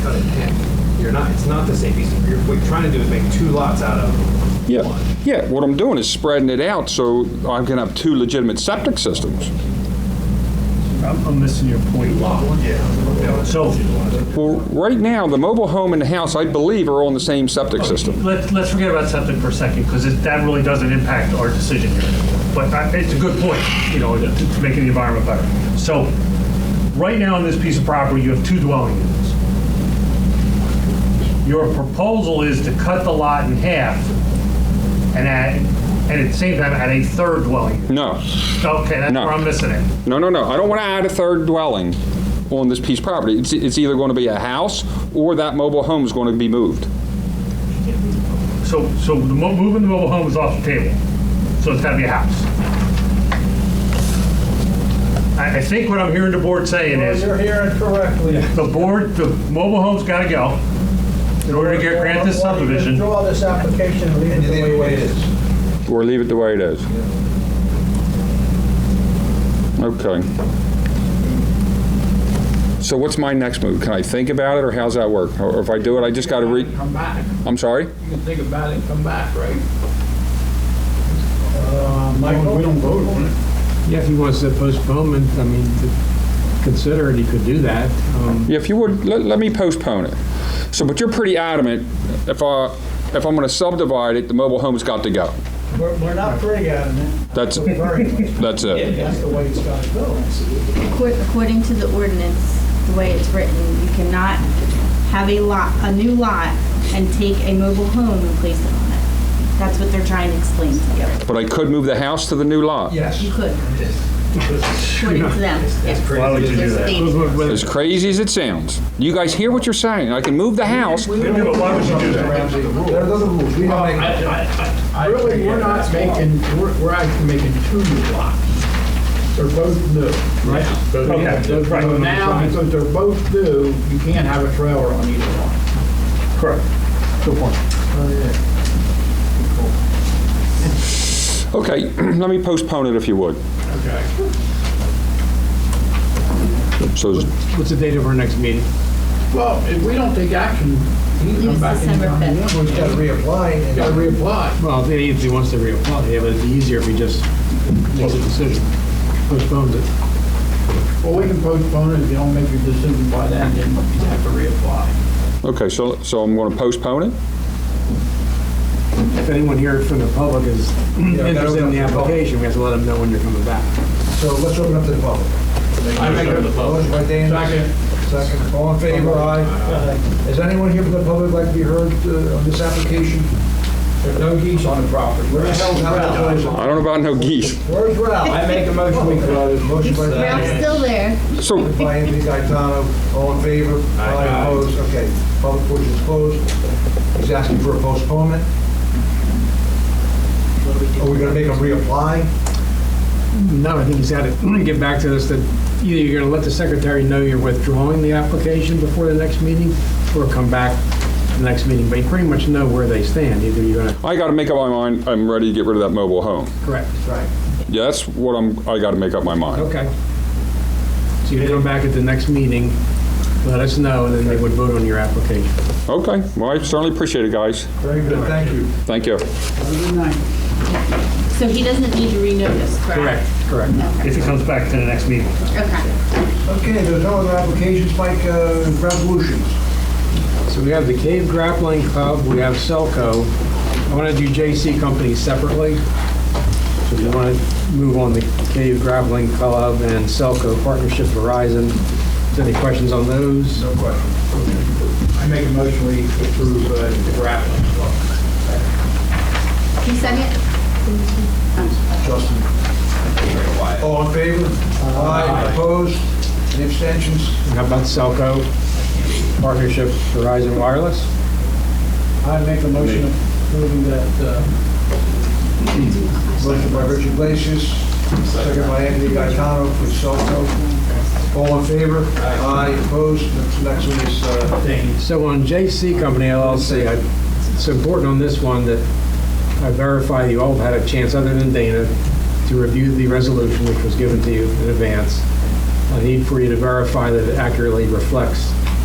out of 10. You're not, it's not the same piece. of- you're- What you're trying to do is make two lots out of Yeah, one. yeah, what I'm doing is spreading it out so I can have two legitimate septic systems. I'm, I'm missing your point. Yeah. So, Well, right now, the mobile home and the house, I believe, are on the same septic system. let's, let's forget about something for a second, because that really doesn't impact our decision here. But I- it's a good point, you know, to to make the environment better. So, right now on this piece of property, you have two dwelling units. Your proposal is to cut the lot in half and add, and at the same time, add a third dwelling. unit. No, Okay, that's No. where I'm missing it. no, no, no, I don't want to add a third dwelling on this piece of property. It's, it's either going to be a house or that mobile home is going to be moved. So, so the mo- moving the mobile home is off the table, so it's gotta be a house. I, I think what I'm hearing the board saying is, You're hearing correctly. the board, the mobile home's gotta go in order to get grant this Why don't you subdivision. Draw this application and leave it the way it is. Or leave it the way it is. Okay. So what's my next move? Can I think about it, or how's that work? Or if I do it, I just got to re, Come back. I'm sorry? You can think about it and come back, right? Michael? We don't vote on it. Yeah, if he wants to postpone, it, I mean, to consider it, he could do that. Um, Yeah, if you would, let, let me postpone it. So, but you're pretty adamant, if I, if I'm gonna subdivide it, the mobile home's got to go. We're, we're not pretty adamant. That's, We're very adamant. that's it. That's the way it's gotta go. Accor- According to the ordinance, the way it's written, you cannot have a lot, a new lot and take a mobile home and place it on it. That's what they're trying to explain to you. But I could move the house to the new lot. Yes. You could. According to them. yeah. Why would you do that? Stated. but- but- As crazy as it sounds. You guys hear what you're saying? I can move the house. Yeah, but why would you do that? There are other rules. We don't make. Really, we're not making, we're, we're actually making two new lots. They're both new. Right. Okay, that's right. So now, because they're both new, you can't have a trailer on either one. Correct. Good point. Oh, Okay, let me postpone it if you would. Okay. So, is- What's the date of our next meeting? Well, if we don't take action, you can It come was back December anytime you fifth. want. We gotta reapply You and gotta gotta reapply. Well, if he- if he wants to reapply, yeah, but it's easier if he just makes a decision, postpones it. Well, we can postpone it if you don't make your decision by then, then you have to reapply. okay, so, so I'm gonna postpone it? If anyone here from the public is interested in the application, we have to let them know when you're coming back. So let's open up to the public. I make it the public. Motion by Dan. Second. Second. All in favor, aye. Is anyone here from the public like to be heard uh, on this application? There's no geese on the property. Where the hell is Ralph? I don't know about no geese. Where's Ralph? I make a motion, we close. Motion by Dan. Ralph's still there. So, By Anthony Gaetano, all in favor? Aye. Opposed? Okay, public portion is closed. He's asking for a postponement. Are we gonna make him reapply? No, I think he's got to get back to us that either you're going to let the secretary know you're withdrawing the application before the next meeting, or come back to the next meeting, but you pretty much know where they stand, either you're going to, I gotta make up my mind, I'm ready to get rid of that mobile home. correct, Right. Yeah, that's what I'm, I gotta make up my mind. okay. So you come back at the next meeting, let us know, and then they would vote on your application. Okay, well, I certainly appreciate it, guys. Very good, thank you. Thank you. So he doesn't need to renotice, correct? Correct, correct. If it comes back to the next meeting. Okay. Okay, there's no other applications, Mike, uh, resolutions? So we have the Cave Grappling Club, we have Selco. I want to do JC Company separately. So we want to move on the Cave Grappling Club and Selco Partnership Verizon. Is there any questions on those? No question. I make a motion, we approve uh, the grappling hook. He second? Justin. All in favor? Aye. Opposed? Any abstentions? And How about Selco Partnership Verizon Wireless? I make a motion approving that, uh... Motion by Richard Glacius, second by Anthony Gaetano for Selco. All in favor? Aye. Opposed? Next- Next one is, uh... So on JC Company LLC, I- it's important on this one that I verify you all had a chance, other than Dana, to review the resolution which was given to you in advance. I need for you to verify that it accurately reflects